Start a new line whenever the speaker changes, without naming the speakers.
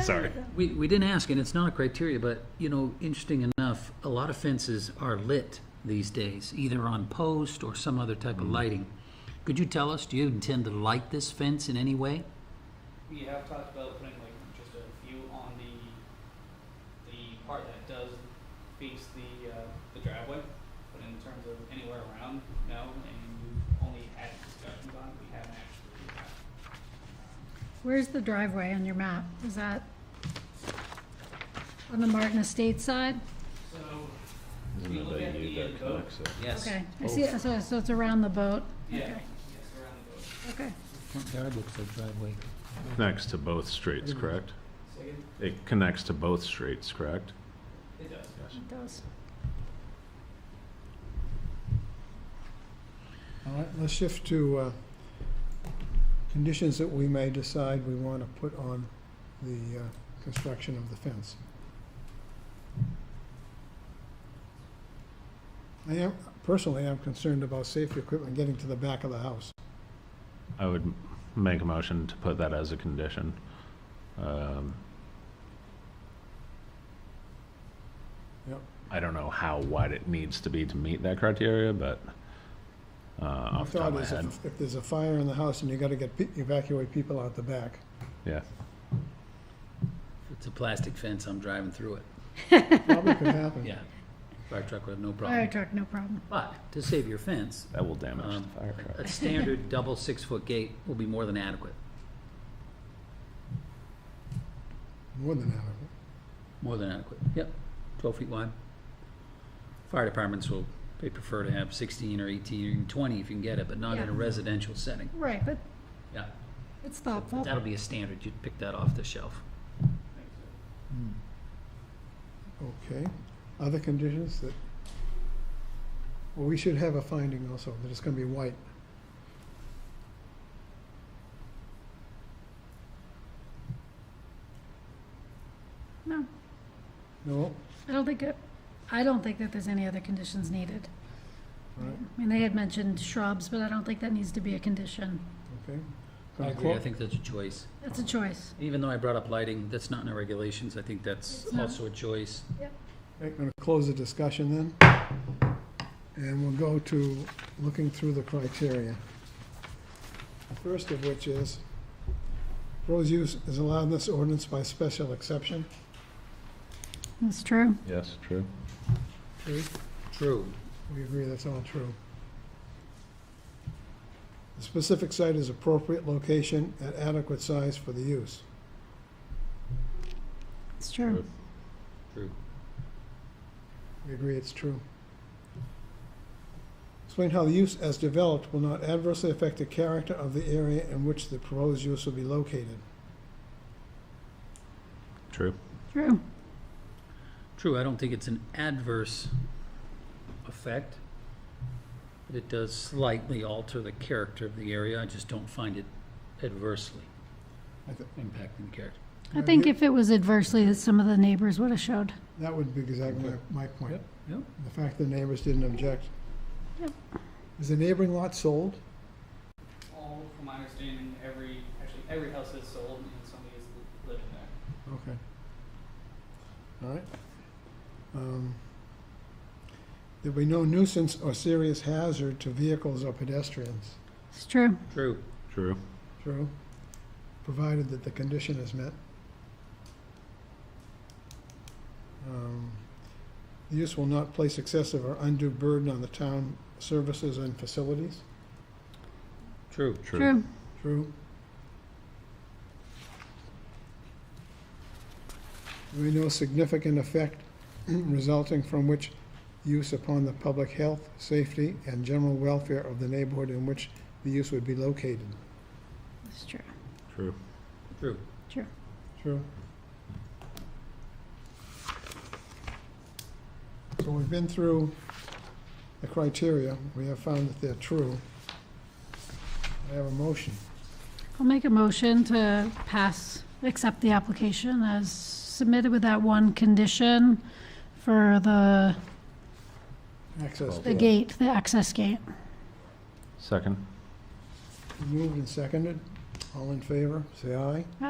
Sorry.
We, we didn't ask, and it's not a criteria, but, you know, interesting enough, a lot of fences are lit these days, either on post or some other type of lighting. Could you tell us, do you intend to light this fence in any way?
We have talked about putting like just a few on the, the part that does face the, uh, the driveway, but in terms of anywhere around, no, and we've only had discussions on, it. we haven't actually, uh,
Where's the driveway on your map? Is that on the Martin Estates side?
so,
Isn't
we
it
look
that
at
you
the uh,
that
boat.
connects it?
Yes.
Okay, I see, it. so, so it's around the boat?
Yeah,
Okay,
yes, around the boat.
Okay,
Front yard looks like driveway.
Connects to both streets, correct?
So it,
It connects to both streets, correct?
it does.
it does.
All right, let's shift to uh, conditions that we may decide we want to put on the uh, construction of the fence. I am, personally, I'm concerned about safety equipment getting to the back of the house.
I would m- make a motion to put that as a condition. Um,
Yep.
I don't know how wide it needs to be to meet that criteria, but uh,
My
off the top
thought
of my
is
head,
if- if there's a fire in the house and you got to get, pe- evacuate people out the back.
yeah.
If It's a plastic fence, I'm driving through it,
Probably could happen.
yeah. Fire truck would have no
Fire
problem.
truck, no problem.
But, to save your fence,
That will damage
um,
the fire truck.
a standard double six-foot gate will be more than adequate,
More than adequate.
more than adequate, yep, twelve feet wide. Fire departments will, they prefer to have sixteen or eighteen or even twenty if you can get it, but not in a
Yeah.
residential setting,
Right, but
yeah.
it's thoughtful.
That'll be a standard, you'd pick that off the shelf.
Thanks, sir.
Okay. Other conditions that, well, we should have a finding also, that it's going to be white.
No,
No?
I don't think, it- I don't think that there's any other conditions needed.
All right.
I mean, they had mentioned shrubs, but I don't think that needs to be a condition.
Okay.
I
Gonna
agree, I
clo-
think that's a choice.
That's a choice.
Even though I brought up lighting, that's not in our regulations, I think that's
It's not.
also a choice.
okay, gonna close the discussion then. And we'll go to looking through the criteria. First of which is, rose use is allowed in this ordinance by special exception.
That's true.
Yes, true.
True.
True.
We agree that's all true. The specific site is appropriate location at adequate size for the use.
It's true.
True.
We agree it's true. Explain how the use as developed will not adversely affect the character of the area in which the proposed use will be located.
True.
True.
True, I don't think it's an adverse effect, but it does slightly alter the character of the area, I just don't find it adversely
I thi-
impacting the character.
I think if it was adversely, that some of the neighbors would have showed.
That would be exactly my- my point.
Yep.
The fact the neighbors didn't object.
Yep.
Is the neighboring lot sold?
All, from my understanding, every, actually, every house is sold and somebody is li- living
Okay.
there.
All right. Um, There'll be no nuisance or serious hazard to vehicles or pedestrians.
It's true.
True,
True.
True. Provided that the condition is met. Um, The use will not place excessive or undue burden on the town services and facilities.
true.
True.
True. There will be no significant effect resulting from which use upon the public health, safety, and general welfare of the neighborhood in which the use would be located.
It's true.
True.
True.
True.
True. So we've been through the criteria, we have found that they're true. I have a motion.
I'll make a motion to pass, accept the application as submitted with that one condition for the,
Access.
the gate, the access gate.
Second.
Moved and seconded, all in favor, say aye.